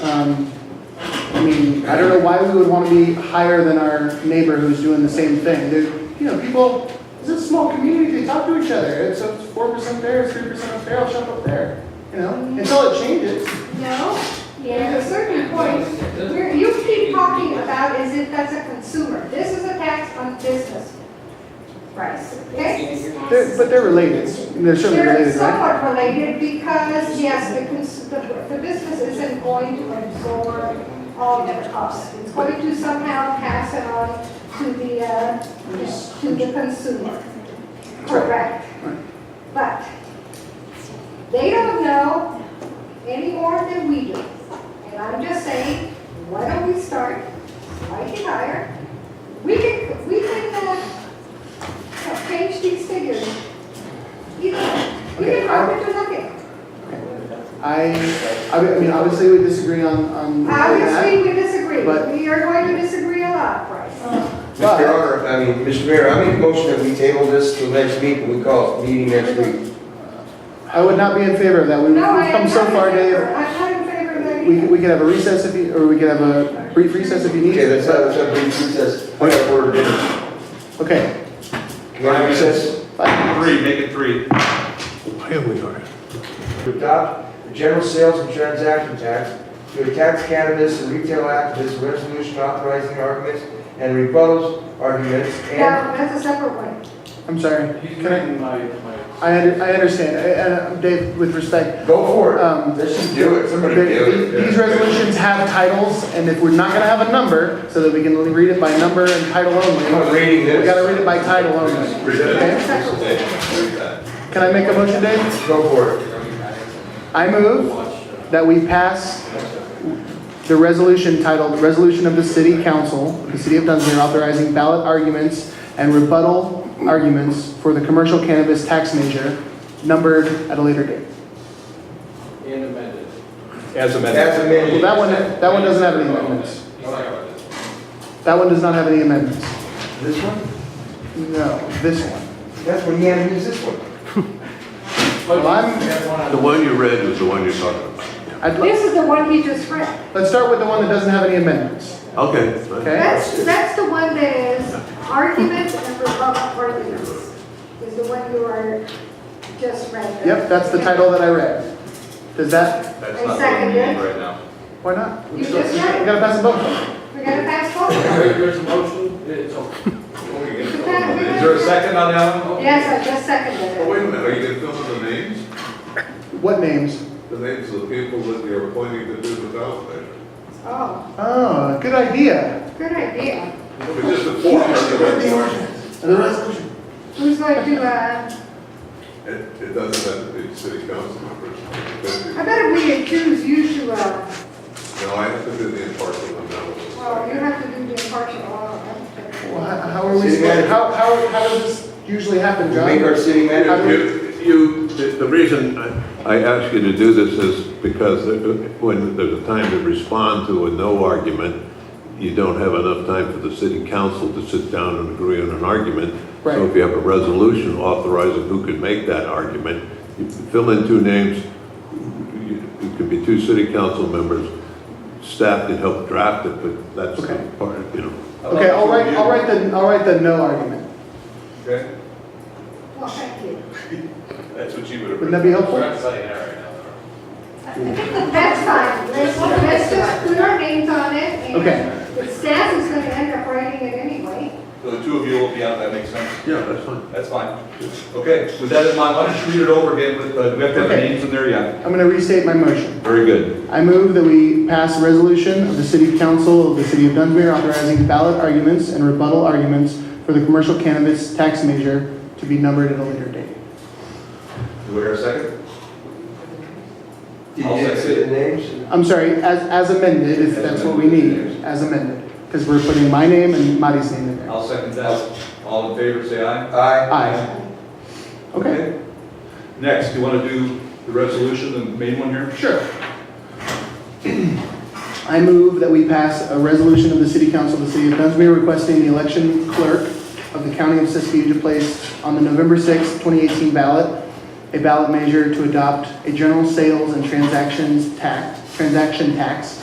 Um, I mean, I don't know why we would want to be higher than our neighbor who's doing the same thing. There, you know, people, it's a small community, they talk to each other. It's four percent there, it's three percent up there, I'll shop up there. You know, until it changes. No, there's a certain point where you keep talking about as if that's a consumer. This is a tax on business price, okay? They're, but they're related. They're certainly They're related, right? somewhat related because, yes, the cons, the, the business isn't going to absorb all their costs. It's going to somehow pass it on to the, uh, to the consumer. Correct. But they don't know any more than we do. And I'm just saying, why don't we start slightly higher? We can, we can, uh, change these figures. You know, we Okay, can I- talk into nothing. I, I mean, obviously we disagree on, on that. Obviously, we disagree. Mm-hmm. but- We are going to disagree a lot, Bryce. But- Mr. Honor, I mean, Mr. Mayor, I make a motion that we table this till next week, and we call it meeting next week. I would not be in favor of that. We've we've No, I am come so not in far, favor. Dave. I'm not in favor of that We, either. could- we could have a recess if you, or we could have a brief recess if you need. Okay, that's not, that's not, recess. I got a word. Can Okay. I have recess? Three, make it three. Here we are. To adopt the general sales and transaction tax, to attack cannabis and retail activists, resolution authorizing arguments and rebuttals, arguments, and Yeah, that's a separate one. I'm sorry. He's Can I, making my, my, I, under- I understand. I- And uh, Dave, with respect, go for Um, it. Let's just do it, somebody the- do the- it. these resolutions have titles, and if we're not gonna have a number, so that we can read it by number and title I'm only, not reading we gotta this. read it by title only. Read Okay? Can I make a motion, Dave? Go for it. I move watch, uh, that we pass the resolution titled, Resolution of the City Council, of the City of Dunsmere authorizing ballot arguments and rebuttal arguments for the commercial cannabis tax measure, numbered at a later date. and amended. As amended. That's Well, amended. that one, that one doesn't have any amendments. He's like, uh, That one does not have any amendments. This one? No, this one. That's when you had to use this one. Well, I'm, that's one The one you read was the one you're talking I'd, li- This is the one he just read. let's start with the one that doesn't have any amendments, about. Okay. fine. okay? That's, that's the one that is arguments and rebuttal arguments, is the one you are just read. Yep, that's the title that I read. Does that, That's I not what second we need it. right now. why not? You just We read it. gotta pass a vote. We're gonna pass forward. If There's a motion, it's over. Is there a second on that one? Yes, I just Oh, seconded it. wait a minute, are you gonna fill in the names? What names? The names of the people that you're appointing to do the ballot measure? Oh, Oh, good idea. good idea. It was just a form, it, The resolution. Who's going to, uh, it doesn't have to be city council members. I bet if we could choose you to, uh, No, I have to do the impartial well, you analysis. have to do the impartial, oh, Well, okay. how, how are we, supposed- how, how, how does this usually happen, We Make John? our city manager. How do we- You, you, the- the reason I- I ask you to do this is because when there's a time to respond to a no argument, you don't have enough time for the city council to sit down and agree on an argument. So Right. if you have a resolution authorizing who can make that argument, you fill in two names, you- it could be two city council members, staff can help draft it, but that's the Okay. part, you know. Okay, I'll write, I'll write the, I'll write the no argument. Okay, Well, thank you. that's what you would have. Wouldn't that be We're helpful? not saying that right now. That's fine, let's, let's just put our names on it, Okay. and the staff is gonna end up writing it anyway. So the two of you will be out, that makes sense. Yeah, that's fine. That's fine. Okay, with that in mind, why don't you read it over again with, uh, do we have to have the Okay. names in there? Yeah, I'm gonna restate my motion. very good. I move that we pass a resolution of the City Council of the City of Dunsmere authorizing ballot arguments and rebuttal arguments for the commercial cannabis tax measure to be numbered at a later date. Do we have a second? Did I'll you second say it. the names? I'm sorry, as, as amended, if that's what we need, as amended, because we're putting my name and Marty's name in there. I'll second that. All in favor, say aye. Aye. Aye. Okay, Next, you want to do the resolution, the main one here? sure. I move that we pass a resolution of the City Council of the City of Dunsmere requesting the election clerk of the County of Siskiyou to place on the November 6, 2018 ballot, a ballot measure to adopt a general sales and transactions tax, transaction tax